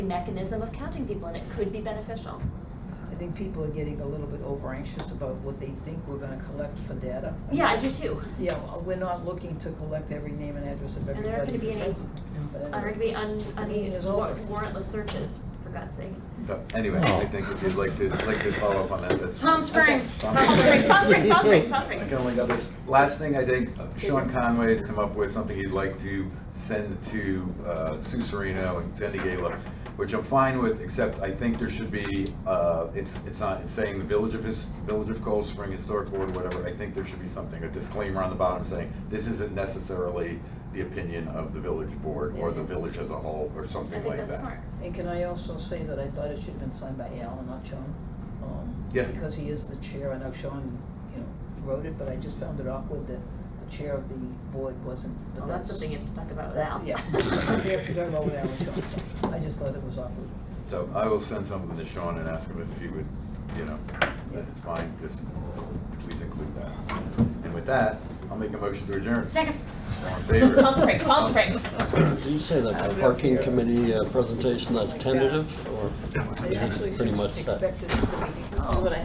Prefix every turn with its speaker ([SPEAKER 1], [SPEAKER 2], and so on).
[SPEAKER 1] mechanism of counting people, and it could be beneficial.
[SPEAKER 2] I think people are getting a little bit over anxious about what they think we're gonna collect for data.
[SPEAKER 1] Yeah, I do too.
[SPEAKER 2] Yeah, well, we're not looking to collect every name and address of everybody.
[SPEAKER 1] And there aren't gonna be any,
[SPEAKER 2] But
[SPEAKER 1] aren't
[SPEAKER 2] anyway.
[SPEAKER 1] gonna be un,
[SPEAKER 2] The
[SPEAKER 1] un,
[SPEAKER 2] meeting is
[SPEAKER 1] war-
[SPEAKER 2] over.
[SPEAKER 1] warrantless searches, for God's sake.
[SPEAKER 3] So anyway, I think if you'd like to, like to follow up on that, that's.
[SPEAKER 1] Palm Springs,
[SPEAKER 3] Okay.
[SPEAKER 1] Palm Springs, Palm Springs, Palm Springs, Palm
[SPEAKER 3] I
[SPEAKER 1] Springs.
[SPEAKER 3] can only go this, last thing, I think Sean Conway has come up with something he'd like to send to uh, Sue Serino and Sandy Gala, which I'm fine with, except I think there should be, uh, it's, it's not, it's saying the Village of His, Village of Cold Spring Historic Board, whatever, I think there should be something, a disclaimer on the bottom saying, this isn't necessarily the opinion of the village board or the village as a whole, or
[SPEAKER 1] I
[SPEAKER 3] something
[SPEAKER 1] think
[SPEAKER 3] like that.
[SPEAKER 1] that's smart.
[SPEAKER 2] And can I also say that I thought it should have been signed by Al, not Sean? um,
[SPEAKER 3] Yeah.
[SPEAKER 2] Because he is the chair, I know Sean, you know, wrote it, but I just found it awkward that the chair of the board wasn't, but
[SPEAKER 1] Well, Oh, that's something you have to talk about with Al.
[SPEAKER 2] That's- Yeah, that's something you have to talk about with Al and Sean, so I just thought it was awkward.
[SPEAKER 3] So I will send something to Sean and ask him if he would, you know, that it's fine, just please include that. And with that, I'll make a motion to adjourn.
[SPEAKER 1] Second.
[SPEAKER 3] All in favor?
[SPEAKER 1] Palm Springs, Palm Springs.
[SPEAKER 4] You say that the parking committee uh, presentation, that's tentative, or?
[SPEAKER 2] I actually
[SPEAKER 4] Pretty much that.
[SPEAKER 2] expected the meeting, this is what I